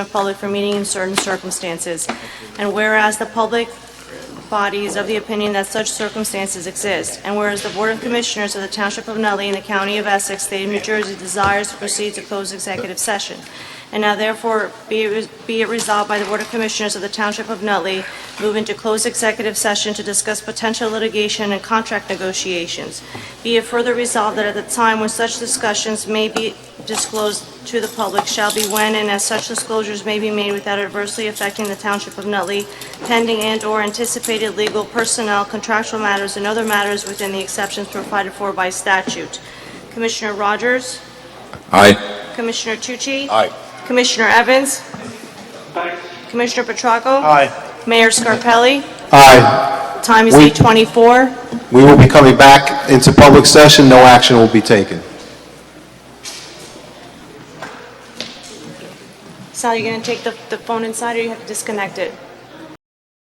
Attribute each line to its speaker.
Speaker 1: the public for meeting in certain circumstances. And whereas the public body is of the opinion that such circumstances exist, and whereas the Board of Commissioners of the Township of Nutley in the County of Essex, State of New Jersey desires to proceed to close executive session. And now therefore be it be it resolved by the Board of Commissioners of the Township of Nutley, move into closed executive session to discuss potential litigation and contract negotiations. Be it further resolved that at the time when such discussions may be disclosed to the public shall be when and as such disclosures may be made without adversely affecting the Township of Nutley, pending and/or anticipated legal, personnel, contractual matters, and other matters within the exceptions provided for by statute. Commissioner Rogers?
Speaker 2: Aye.
Speaker 1: Commissioner Tucci?
Speaker 2: Aye.
Speaker 1: Commissioner Evans? Commissioner Petracco?
Speaker 3: Aye.
Speaker 1: Mayor Scarpelli?
Speaker 3: Aye.
Speaker 1: Time is
Speaker 3: We-
Speaker 1: 8:24.
Speaker 3: We will be coming back into public session. No action will be taken.
Speaker 1: Sal, you going to take the the phone inside, or you have to disconnect it?